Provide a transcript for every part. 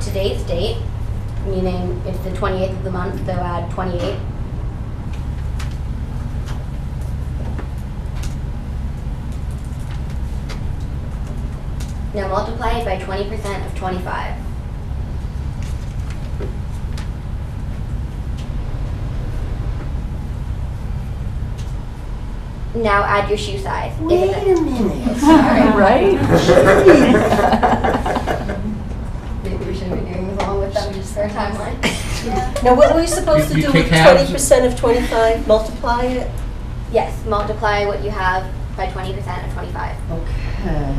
today's date, meaning it's the 28th of the month, they'll add 28. Now multiply it by 20% of 25. Now add your shoe size. If Wait it's a- a minute. Right? Maybe we shouldn't be doing this along with them just for a timeline. Now, what were you supposed to You- do you with take halves. twenty percent of twenty-five, multiply it? yes, multiply what you have by 20% of 25. Okay.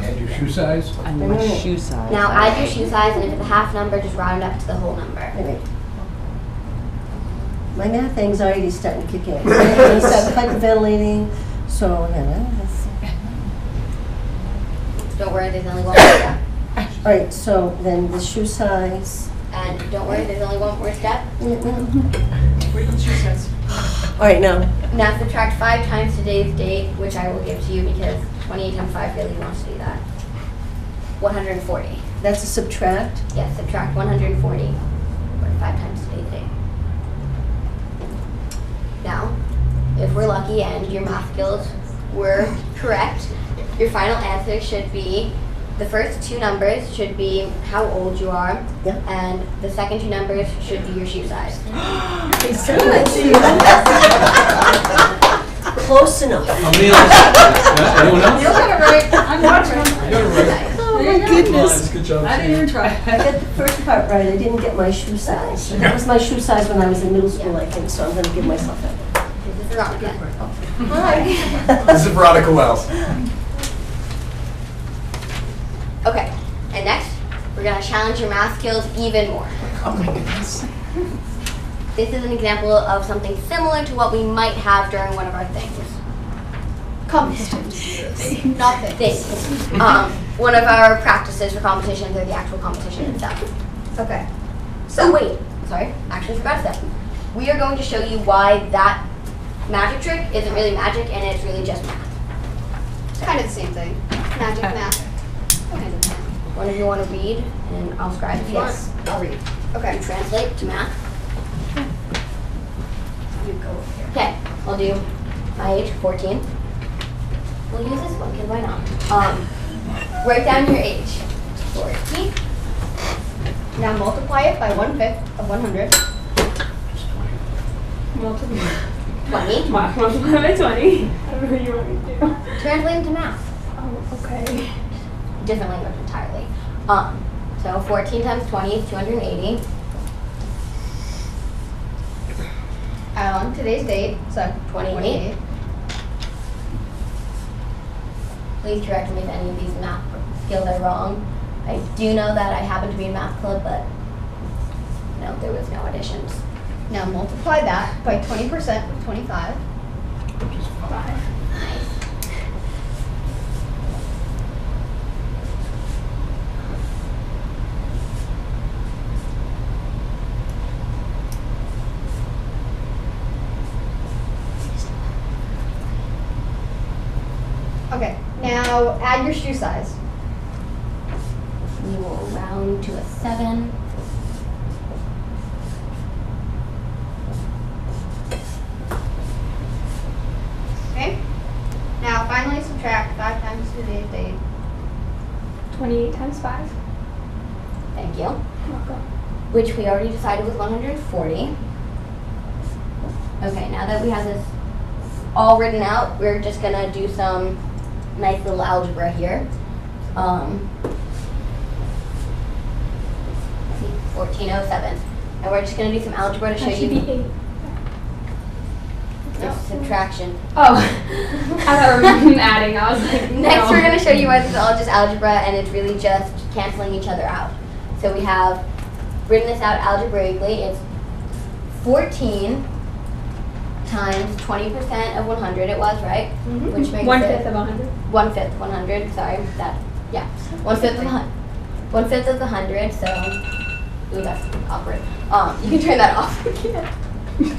And your shoe size? And my shoe size. Now add your shoe size, and if it's a half number, just round up to the whole number. Wait a minute. My math anxiety is starting to kick in. I start hyperventilating, so, you know, that's- Don't worry, there's only one more step. all right, so then the shoe size. And don't worry, there's only one more step. All Wait till she says. right, now, Now subtract five times today's date, which I will give to you because 28 times 5 really wants to do that. 140. that's a subtract. Yes, subtract 140 or five times today's date. Now, if we're lucky and your math skills were correct, your final answer should be the first two numbers should be how old you are, Yeah. and the second two numbers should be your shoe size. Close enough. Oh Anyone else? Anyone You else? got it right. I'm watching. You got it right. Oh, my goodness. Good job. I didn't even I try. got the first part right, I didn't get my shoe size. That was my shoe size when I was in middle school, I think, so I'm gonna give myself that. This is wrong again. Hi. This is Veronica Wells. Okay, and next, we're gonna challenge your math skills even more. Oh my goodness. This is an example of something similar to what we might have during one of our things. Competitions. Not things. Um, one of our practices for competitions or the actual competition itself. Okay. So wait, sorry, actually forgot a step. We are going to show you why that magic trick isn't really magic and it's really just math. It's kind of the same thing. Magic Uh, math. Kind of math. One of you want to read and I'll scribe if you want. Yes, I'll read. You Okay. translate to math. You go over here. Okay, I'll do my age, 14. We'll use this one, because why not? Um, write down your age, 14. Now multiply it by one fifth of 100. 20. Mark multiplied by 20. I don't know what you want me to do. Translate into math. Oh, okay. Different language entirely. Um, so 14 times 20 is 280. Add Um, on today's date, so 28. Please correct me if any of these math skills are wrong. I do know that I happen to be in math club, but no, there was no additions. Now multiply that by 20% of 25. Okay, now add your shoe size. We will round to a 7. Okay? Now finally subtract 5 times today's date. 28 times 5. Thank you. Welcome. which we already decided was 140. Okay, now that we have this all written out, we're just gonna do some nice little algebra here. Um, let's see, 1407. And we're just gonna do some algebra to show That should be you 8. the subtraction. Oh. I thought we were adding. I was like, Next, no. we're going to show you why this is all just algebra and it's really just canceling each other out. So we have written this out algebraically. It's 14 times 20% of 100, it was, right? Mhm. Which makes One it- fifth of 100. One fifth, 100, sorry, that, yeah. One fifth of the, hun- one fifth of the 100, so, ooh, that's awkward. Um, you can turn that off.